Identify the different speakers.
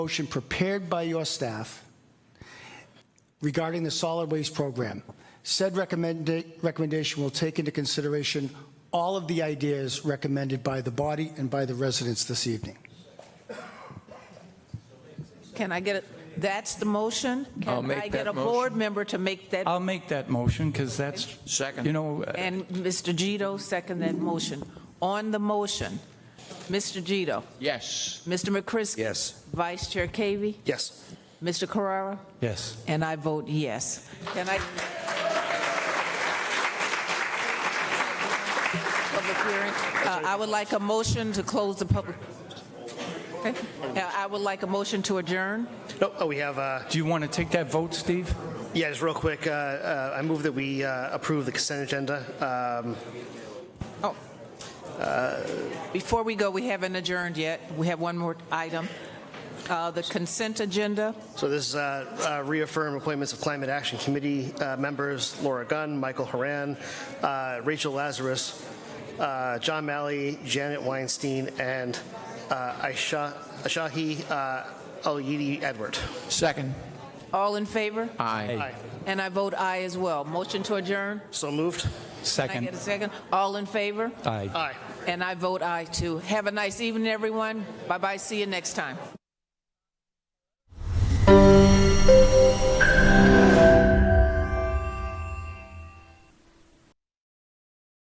Speaker 1: motion prepared by your staff regarding the solid waste program. Said recommenda- recommendation will take into consideration all of the ideas recommended by the body and by the residents this evening.
Speaker 2: Can I get it? That's the motion?
Speaker 3: I'll make
Speaker 2: Can I get
Speaker 3: that
Speaker 2: a board member to make that?
Speaker 3: I'll make that motion because that's,
Speaker 4: Second.
Speaker 3: you know, uh,
Speaker 2: And Mr. Gito second that motion. On the motion, Mr. Gito,
Speaker 4: Yes.
Speaker 2: Mr. McCrisky.
Speaker 4: Yes.
Speaker 2: Vice Chair Cavey,
Speaker 4: Yes.
Speaker 2: Mr. Carrara,
Speaker 3: yes.
Speaker 2: and I vote yes. Can I? Public hearing. Uh, I would like a motion to close the public. Okay. Uh, I would like a motion to adjourn.
Speaker 5: Nope, oh, we have, uh,
Speaker 3: Do you want to take that vote, Steve?
Speaker 5: yeah, just real quick, uh, uh, I move that we uh, approve the consent agenda. Um,
Speaker 2: Oh. Before we go, we haven't adjourned yet. We have one more item. Uh, The consent agenda,
Speaker 5: So this is uh, uh, reaffirm appointments of Climate Action Committee uh, members Laura Gunn, Michael Haran, uh, Rachel Lazarus, uh, John Malley, Janet Weinstein, and uh, Aisha- Ashahi uh, Al-Yidi Edward.
Speaker 4: Second.
Speaker 2: all in favor?
Speaker 4: Aye.
Speaker 2: And I vote aye as well. Motion to adjourn?
Speaker 5: So moved?
Speaker 2: Can I get a
Speaker 3: Second.
Speaker 2: second? All in favor?
Speaker 3: Aye.
Speaker 5: Aye.
Speaker 2: And I vote aye too. Have a nice evening, everyone. Bye-bye, see you next time.